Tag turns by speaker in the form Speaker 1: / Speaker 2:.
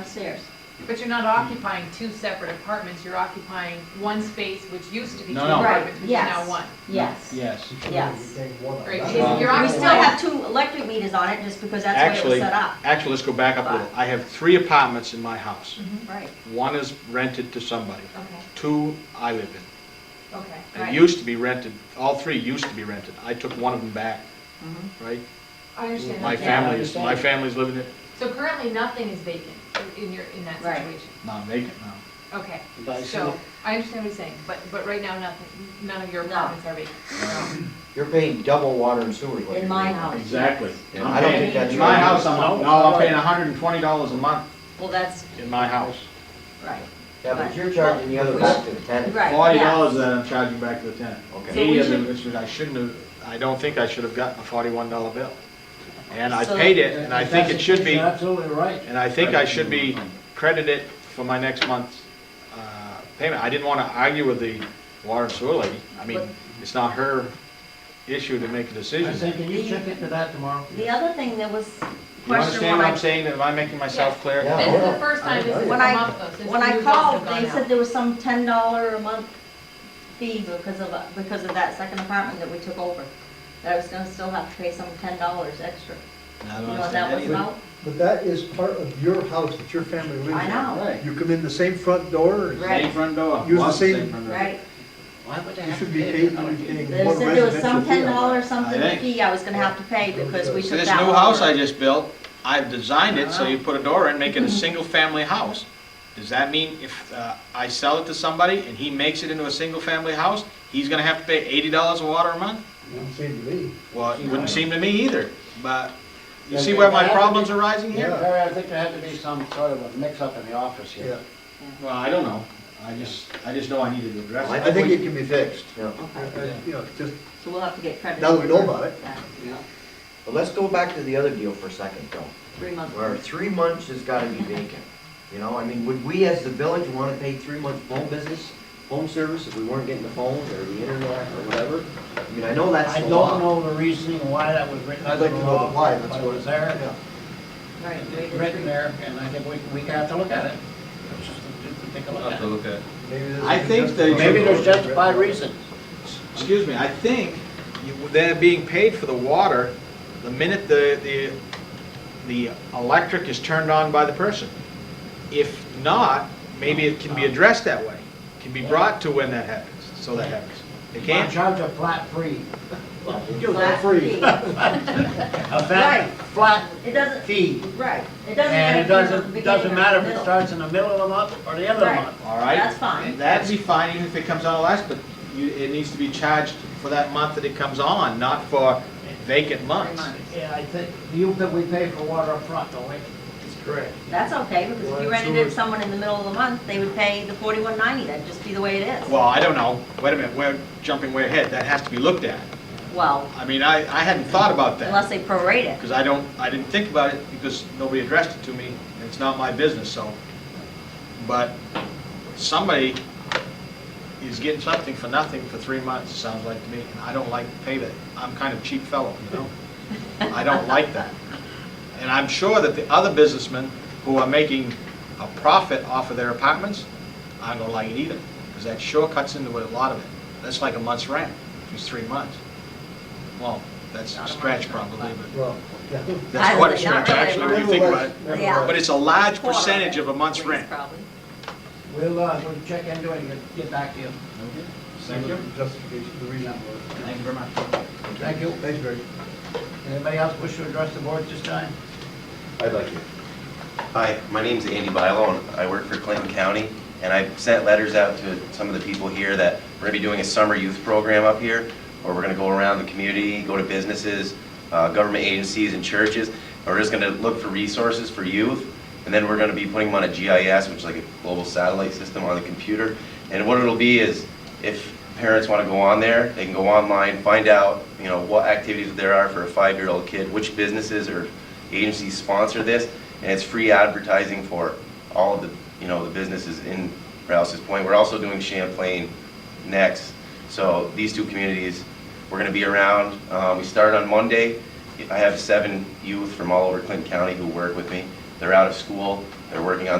Speaker 1: downstairs.
Speaker 2: But you're not occupying two separate apartments, you're occupying one space which used to be two
Speaker 3: No, no.
Speaker 2: apartments, which is
Speaker 1: Right,
Speaker 2: now
Speaker 1: yes.
Speaker 2: one.
Speaker 1: Yes.
Speaker 3: Yes.
Speaker 1: Yes.
Speaker 2: Right,
Speaker 3: That's
Speaker 2: you're-
Speaker 3: wrong.
Speaker 2: you're
Speaker 1: Um, We
Speaker 2: occupying.
Speaker 1: still have two electric meters on it, just because that's the way
Speaker 3: Actually,
Speaker 1: it was set up.
Speaker 3: actually, let's go back up a little. I have three apartments in my house.
Speaker 1: Right,
Speaker 3: One is rented to somebody,
Speaker 1: okay,
Speaker 3: two I live in.
Speaker 1: okay,
Speaker 3: It
Speaker 1: right.
Speaker 3: used to be rented, all three used to be rented. I took one of them back,
Speaker 1: Mhm.
Speaker 3: right?
Speaker 2: I understand.
Speaker 1: Yeah,
Speaker 3: My
Speaker 1: I
Speaker 2: that.
Speaker 3: family is, my
Speaker 4: understand.
Speaker 3: family's living it,
Speaker 2: So currently, nothing is vacant in your, in that
Speaker 1: Right.
Speaker 2: situation?
Speaker 3: not vacant now.
Speaker 2: Okay,
Speaker 4: But I
Speaker 2: so,
Speaker 4: see-
Speaker 2: I understand what you're saying, but, but right now, nothing, none of your
Speaker 1: No.
Speaker 2: apartments are vacant.
Speaker 5: You're paying double water and sewer. is what
Speaker 1: In
Speaker 5: you're
Speaker 1: my
Speaker 5: paying.
Speaker 1: house.
Speaker 3: Exactly.
Speaker 5: And I don't think that's.
Speaker 3: In my
Speaker 5: right.
Speaker 3: house, I'm, no, I'm paying hundred and twenty dollars a month
Speaker 1: Well, that's,
Speaker 3: in my house.
Speaker 1: right,
Speaker 5: Yeah, but you're charging the other back to the tenant.
Speaker 1: right,
Speaker 3: Forty
Speaker 1: yeah.
Speaker 3: dollars that I'm charging back to the tenant.
Speaker 5: Okay.
Speaker 2: So we
Speaker 3: Eighty of
Speaker 2: should-
Speaker 3: it, which I shouldn't have, I don't think I should have gotten a forty-one dollar bill. And I
Speaker 1: So-
Speaker 3: paid it, and I think it should be,
Speaker 4: You're absolutely right.
Speaker 3: and I think I should be credited for my next month's uh, payment. I didn't want to argue with the water and sewer lady. I mean, it's not her issue to make a
Speaker 4: I
Speaker 3: decision.
Speaker 4: said, can you check into that tomorrow?
Speaker 1: The other thing that was
Speaker 3: You
Speaker 1: question
Speaker 3: understand
Speaker 1: when
Speaker 3: what
Speaker 1: I,
Speaker 3: I'm saying? Am I making myself
Speaker 2: Yes.
Speaker 3: clear?
Speaker 5: Yeah.
Speaker 2: This is
Speaker 5: hold
Speaker 2: the
Speaker 5: on.
Speaker 2: first time this has
Speaker 1: When
Speaker 2: come
Speaker 1: I-
Speaker 2: up, though, since
Speaker 1: when I
Speaker 2: you guys have
Speaker 1: called, they
Speaker 2: gone out.
Speaker 1: said there was some ten dollar a month fee because of, a- because of that second apartment that we took over. That I was gonna still have to pay some ten dollars extra.
Speaker 3: I
Speaker 1: You
Speaker 3: don't
Speaker 1: know what that was
Speaker 3: understand that
Speaker 1: about?
Speaker 6: But that is part of your house that your family lives in.
Speaker 1: I know,
Speaker 3: either.
Speaker 6: You come in the same front door,
Speaker 3: Right.
Speaker 6: and
Speaker 1: Right.
Speaker 3: Same front door.
Speaker 6: Use the
Speaker 3: Lots of
Speaker 6: same-
Speaker 3: front door.
Speaker 1: right?
Speaker 4: Why would they
Speaker 6: you
Speaker 4: have to
Speaker 6: should be
Speaker 4: pay
Speaker 6: paying,
Speaker 4: another fee?
Speaker 6: paying
Speaker 1: They
Speaker 6: more
Speaker 1: said there was
Speaker 6: residential
Speaker 1: some ten
Speaker 6: fee.
Speaker 1: dollar something
Speaker 3: I think.
Speaker 1: fee I was gonna have to pay because we
Speaker 3: See,
Speaker 1: took
Speaker 3: This
Speaker 1: that
Speaker 3: new house
Speaker 1: over.
Speaker 3: I just built, I've designed it so you put a door in, make it a single-family house. Does that mean if uh, I sell it to somebody and he makes it into a single-family house, he's gonna have to pay eighty dollars a water a month?
Speaker 6: Doesn't seem to me.
Speaker 3: Well, it wouldn't seem to me either, but you see where my problems are rising here?
Speaker 6: Yeah.
Speaker 4: Barry, I think there had to be some sort of a mix-up in the office here.
Speaker 6: Yeah,
Speaker 3: Well, I don't know. I just, I just know I needed to
Speaker 5: I
Speaker 3: address
Speaker 6: I think
Speaker 5: we-
Speaker 6: it can be fixed.
Speaker 5: Yeah.
Speaker 6: Uh, You know, just,
Speaker 1: So we'll have to get credit.
Speaker 6: Now that we know about it.
Speaker 1: Yeah,
Speaker 5: But let's go back to the other deal for a second though,
Speaker 1: Three months.
Speaker 5: where three months has gotta be vacant. You know, I mean, would we as the village wanna pay three months phone business, phone service if we weren't getting the phones or the internet or whatever? I mean, I know that's
Speaker 4: I
Speaker 5: the
Speaker 4: don't
Speaker 5: law.
Speaker 4: know the reasoning why that was written.
Speaker 6: I'd like to
Speaker 4: into
Speaker 6: know
Speaker 4: law,
Speaker 6: the why, that's
Speaker 4: but it
Speaker 6: what.
Speaker 4: was there.
Speaker 6: yeah.
Speaker 1: Right. we
Speaker 4: It's
Speaker 1: did
Speaker 4: written
Speaker 1: three.
Speaker 4: there, and I think we, we have to look at it. It's just to- to Take a look at it.
Speaker 6: Maybe this
Speaker 3: I
Speaker 6: is
Speaker 3: think
Speaker 6: just-
Speaker 3: they-
Speaker 4: Maybe there's justified reasons.
Speaker 3: Excuse me, I think you- they're being paid for the water the minute the, the, the electric is turned on by the person. If not, maybe it can be addressed that way, can be brought to when that happens, so that happens. It
Speaker 4: I'm
Speaker 3: can't,
Speaker 4: charged a flat fee.
Speaker 1: Flat
Speaker 6: free.
Speaker 1: fee.
Speaker 4: A
Speaker 1: Right.
Speaker 4: fat, flat
Speaker 1: It doesn't,
Speaker 4: fee.
Speaker 1: right, it doesn't matter.
Speaker 4: And
Speaker 1: if
Speaker 4: it
Speaker 1: you're in the
Speaker 4: doesn't,
Speaker 1: beginning
Speaker 4: doesn't
Speaker 1: or
Speaker 4: matter if it
Speaker 1: middle.
Speaker 4: starts in the middle of the month or the end of the
Speaker 1: Right.
Speaker 4: month.
Speaker 3: all right?
Speaker 1: That's fine.
Speaker 3: That'd be fine even if it comes on last, but you, it needs to be charged for that month that it comes on, not for vacant months.
Speaker 1: months.
Speaker 4: Yeah, I think, you, that we pay for water up front, don't we?
Speaker 1: That's okay, because if you rented it to someone in the middle of the month, they would pay the forty-one ninety, that'd just be the way it is.
Speaker 3: Well, I don't know, wait a minute, we're jumping way ahead, that has to be looked at.
Speaker 1: Well,
Speaker 3: I mean, I, I hadn't thought about that.
Speaker 1: unless they prorate it.
Speaker 3: Because I don't, I didn't think about it because nobody addressed it to me, and it's not my business, so. But somebody is getting something for nothing for three months, it sounds like to me, and I don't like to pay that. I'm kind of cheap fellow, you know? I don't like that. And I'm sure that the other businessmen who are making a profit off of their apartments, I don't like it either, because that sure cuts into a lot of it. That's like a month's rent, which is three months. Well, that's a stretch probably, but.
Speaker 6: Well, yeah.
Speaker 3: That's
Speaker 1: I
Speaker 3: quite a
Speaker 1: would say not
Speaker 3: stretch,
Speaker 1: really.
Speaker 3: actually, when you think about it.
Speaker 6: Nevertheless,
Speaker 1: Yeah.
Speaker 3: But it's a large
Speaker 1: Quarter of
Speaker 3: percentage
Speaker 1: it,
Speaker 3: of a month's
Speaker 1: at least,
Speaker 3: rent.
Speaker 1: Probably.
Speaker 4: We'll, uh, we'll check into it and get- get back to you.
Speaker 3: Thank you.
Speaker 6: Justification, the reason for
Speaker 3: Thank you very much.
Speaker 4: Thank you.
Speaker 6: it. Thanks, Barry.
Speaker 4: Anybody else wish to address the board at this time?
Speaker 7: I'd like to. Hi, my name's Andy Bylow, and I work for Clinton County, and I've sent letters out to some of the people here that we're gonna be doing a summer youth program up here, where we're gonna go around the community, go to businesses, uh, government agencies and churches, and we're just gonna look for resources for youth, and then we're gonna be putting them on a GIS, which is like a global satellite system on the computer, and what it'll be is, if parents want to go on there, they can go online, find out, you know, what activities there are for a five-year-old kid, which businesses or agencies sponsor this, and it's free advertising for all of the, you know, the businesses in Rouse's Point. We're also doing Champlain next, so these two communities, we're going to be around. Uh, We start on Monday. I have seven youth from all over Clinton County who work with me. They're out of school. They're working on their